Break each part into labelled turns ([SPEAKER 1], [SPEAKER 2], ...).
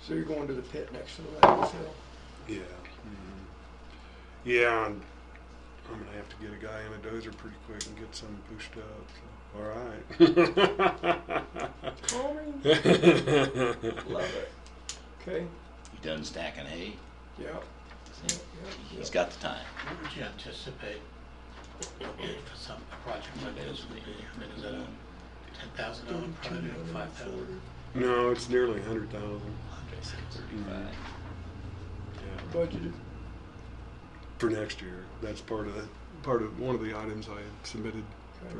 [SPEAKER 1] So you're going to the pit next to the landfill.
[SPEAKER 2] Yeah. mhm. Yeah, I'm, I'm gonna have to get a guy in a dozer pretty quick and get some pushed up. so, All right.
[SPEAKER 1] Calming. Love it. Okay.
[SPEAKER 3] You done stacking hay?
[SPEAKER 1] Yeah.
[SPEAKER 3] See,
[SPEAKER 1] yeah,
[SPEAKER 3] He's
[SPEAKER 1] yeah.
[SPEAKER 3] got the time.
[SPEAKER 4] What would you anticipate for some, a project like this would be? I mean, is that a ten thousand dollar project, five thousand?
[SPEAKER 2] No, it's nearly a hundred thousand.
[SPEAKER 1] Mm-hmm.
[SPEAKER 3] Thirty-five.
[SPEAKER 2] Yeah.
[SPEAKER 1] Budgeted.
[SPEAKER 2] For next year, that's part of the, part of one of the items I had submitted
[SPEAKER 1] Okay.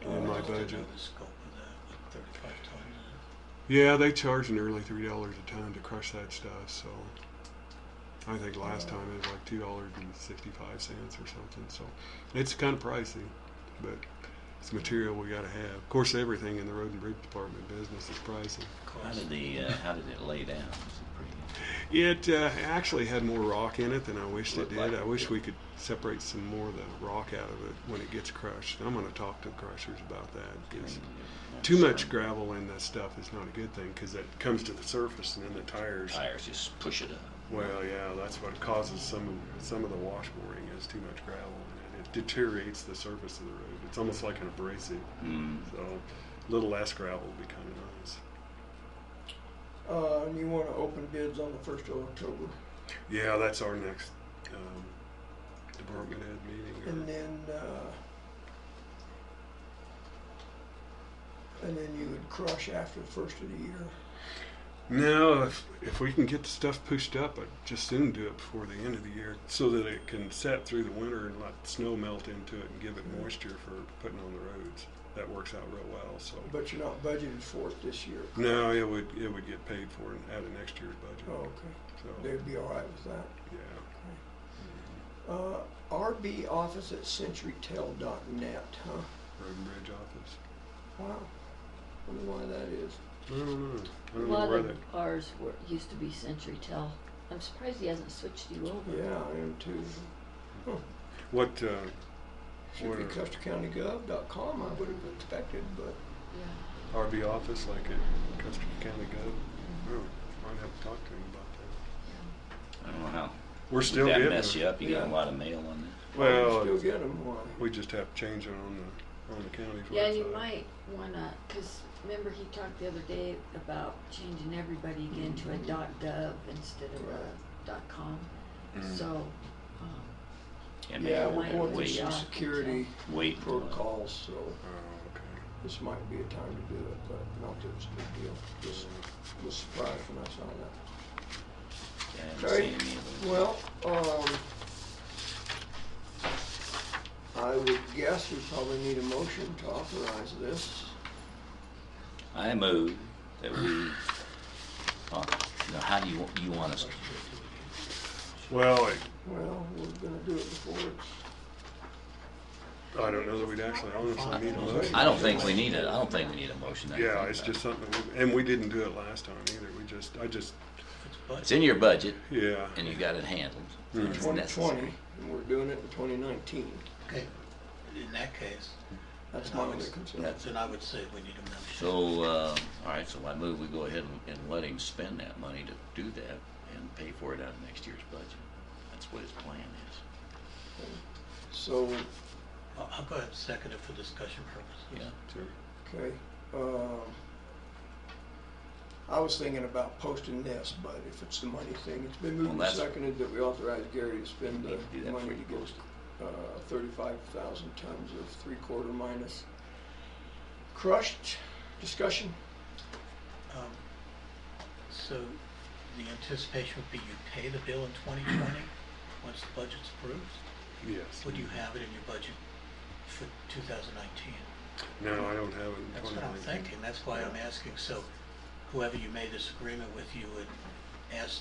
[SPEAKER 2] for in my budget.
[SPEAKER 4] The scope of that, like thirty-five ton.
[SPEAKER 2] Yeah, they charge nearly three dollars a ton to crush that stuff. So I think last
[SPEAKER 3] Yeah.
[SPEAKER 2] time it was like two dollars and sixty-five cents or something. So it's kind of pricey, but it's material we got to have. Of course, everything in the road and bridge department business is pricey.
[SPEAKER 3] How did the, uh, how did it lay down? Was it pretty-
[SPEAKER 2] It uh, actually had more rock in it than I wished it
[SPEAKER 3] Looked
[SPEAKER 2] did.
[SPEAKER 3] like
[SPEAKER 2] I
[SPEAKER 3] it
[SPEAKER 2] wish
[SPEAKER 3] did.
[SPEAKER 2] we could separate some more of the rock out of it when it gets crushed. I'm going to talk to the crushers about that. 'cause Too much gravel in that stuff is not a good thing because it comes to the surface and then the tires.
[SPEAKER 3] Tires just push it up.
[SPEAKER 2] Well, yeah, that's what causes some of some of the washboarding is too much gravel and it deteriorates the surface of the road. It's almost like an abrasive.
[SPEAKER 1] Mm-hmm.
[SPEAKER 3] Mm.
[SPEAKER 2] So a little less gravel would be kind of nice.
[SPEAKER 1] Uh, and you want to open bids on the first of October,
[SPEAKER 2] Yeah, that's our next um, department head meeting. or-
[SPEAKER 1] and then uh, and then you would crush after the first of the year.
[SPEAKER 2] No, if, if we can get the stuff pushed up, I'd just soon do it before the end of the year so that it can set through the winter and let snow melt into it and give it moisture for putting on the roads. That works out real well. So,
[SPEAKER 1] But you're not budgeted for it this year.
[SPEAKER 2] no, it would it would get paid for and out of next year's
[SPEAKER 1] Oh,
[SPEAKER 2] budget.
[SPEAKER 1] okay.
[SPEAKER 2] So,
[SPEAKER 1] They'd be all right with that.
[SPEAKER 2] yeah,
[SPEAKER 1] Uh, RB office at centurytel.net, huh?
[SPEAKER 2] road and bridge office.
[SPEAKER 1] Wow. Wonder why that is.
[SPEAKER 2] I don't know. I
[SPEAKER 5] A
[SPEAKER 2] don't know
[SPEAKER 5] lot
[SPEAKER 2] where
[SPEAKER 5] of
[SPEAKER 2] that.
[SPEAKER 5] ours were, used to be Century Tel. I'm surprised he hasn't switched you over.
[SPEAKER 1] Yeah, I am too.
[SPEAKER 2] What? Uh,
[SPEAKER 1] Should be custercountygov.com, I would have expected, but
[SPEAKER 5] Yeah.
[SPEAKER 2] RB office like at Custer County Gov. Oh, I'd have to talk to him about that.
[SPEAKER 3] I don't know how.
[SPEAKER 2] We're still
[SPEAKER 3] Did
[SPEAKER 2] getting
[SPEAKER 3] that mess
[SPEAKER 2] there.
[SPEAKER 3] you up? You got a
[SPEAKER 1] Yeah.
[SPEAKER 3] lot of mail on
[SPEAKER 2] Well,
[SPEAKER 1] you still get them, why?
[SPEAKER 2] We just have to change it on the, on the county's
[SPEAKER 5] Yeah,
[SPEAKER 2] website.
[SPEAKER 5] you might wanna, cause remember he talked the other day about changing everybody again to a dot gov instead of a dot com.
[SPEAKER 2] Mm.
[SPEAKER 5] So, um,
[SPEAKER 3] that. And
[SPEAKER 1] Yeah,
[SPEAKER 3] maybe
[SPEAKER 1] we're
[SPEAKER 5] might
[SPEAKER 1] going through
[SPEAKER 3] wait,
[SPEAKER 1] some
[SPEAKER 5] out.
[SPEAKER 1] security
[SPEAKER 3] wait. till, uh,
[SPEAKER 1] protocols, so
[SPEAKER 2] Oh, okay.
[SPEAKER 1] this might be a time to do it, but not that it's a big deal. Just was surprised when I saw that.
[SPEAKER 3] yeah, I uh, haven't
[SPEAKER 1] Okay,
[SPEAKER 3] seen any of them.
[SPEAKER 1] well, um, I would guess we probably need a motion to authorize this.
[SPEAKER 3] I move that we. Oh, no, how do you wa- you want us?
[SPEAKER 2] Well, I,
[SPEAKER 1] Well, we're gonna do it before it's,
[SPEAKER 2] I don't know that we'd actually honestly need a motion.
[SPEAKER 3] I don't think we need it. I don't think we need a motion. I
[SPEAKER 2] Yeah,
[SPEAKER 3] think
[SPEAKER 2] it's
[SPEAKER 3] that-
[SPEAKER 2] just something, we- and we didn't do it last time either. We just, I just,
[SPEAKER 3] It's in your budget,
[SPEAKER 2] yeah.
[SPEAKER 3] and you got it handled.
[SPEAKER 2] Mm.
[SPEAKER 3] It's
[SPEAKER 1] twenty
[SPEAKER 3] necessary.
[SPEAKER 1] twenty, and we're doing it in twenty nineteen.
[SPEAKER 4] Okay, in that case,
[SPEAKER 1] That's my only concern.
[SPEAKER 3] That's-
[SPEAKER 4] then I would say we need a motion.
[SPEAKER 3] So, uh, all right, so I move we go ahead and, and let him spend that money to do that and pay for it out of next year's budget. That's what his plan is.
[SPEAKER 1] So,
[SPEAKER 4] I'll, I'll go ahead and second it for discussion purposes.
[SPEAKER 3] Yeah.
[SPEAKER 2] Sure.
[SPEAKER 1] okay, um, I was thinking about posting this, but if it's the money thing, it's been moved
[SPEAKER 3] Well,
[SPEAKER 1] and
[SPEAKER 3] that's-
[SPEAKER 1] seconded that we authorize Gary to spend
[SPEAKER 3] You need to do
[SPEAKER 1] the
[SPEAKER 3] that
[SPEAKER 1] money
[SPEAKER 3] before
[SPEAKER 1] to
[SPEAKER 3] you
[SPEAKER 1] get,
[SPEAKER 3] post
[SPEAKER 1] uh, thirty-five thousand tons of three-quarter minus crushed. Discussion?
[SPEAKER 4] Um, So the anticipation would be you pay the bill in twenty twenty, once the budget's approved?
[SPEAKER 2] Yes.
[SPEAKER 4] Would you have it in your budget for two thousand nineteen?
[SPEAKER 2] No, I don't have it in
[SPEAKER 4] That's what I'm
[SPEAKER 2] 2019.
[SPEAKER 4] thinking, that's why I'm asking, so whoever you made this agreement with, you would ask,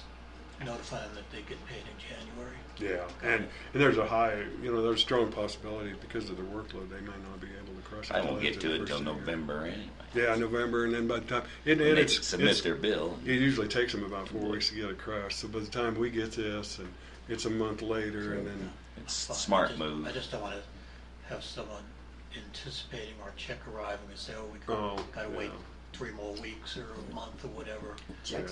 [SPEAKER 4] notify them that they get paid in January?
[SPEAKER 2] Yeah, and, and there's a high, you know, there's strong possibility because of their workload, they may not be able to crush it.
[SPEAKER 3] I
[SPEAKER 2] all
[SPEAKER 3] won't get
[SPEAKER 2] into
[SPEAKER 3] to
[SPEAKER 2] the
[SPEAKER 3] it
[SPEAKER 2] first
[SPEAKER 3] till
[SPEAKER 2] of the year.
[SPEAKER 3] November anyway.
[SPEAKER 2] Yeah, November, and then by the time, and,
[SPEAKER 3] When
[SPEAKER 2] and
[SPEAKER 3] they
[SPEAKER 2] it's. it's-
[SPEAKER 3] submit their bill.
[SPEAKER 2] It usually takes them about four weeks to get it crushed. So by the time we get this, and it's a month later, and then
[SPEAKER 3] It's
[SPEAKER 4] Fine, I
[SPEAKER 3] smart
[SPEAKER 4] just-
[SPEAKER 3] move.
[SPEAKER 4] I just don't wanna have someone anticipating our check arriving and say, oh, we
[SPEAKER 2] Oh,
[SPEAKER 4] gotta wait
[SPEAKER 2] yeah.
[SPEAKER 4] three more weeks or a month or whatever.
[SPEAKER 5] Check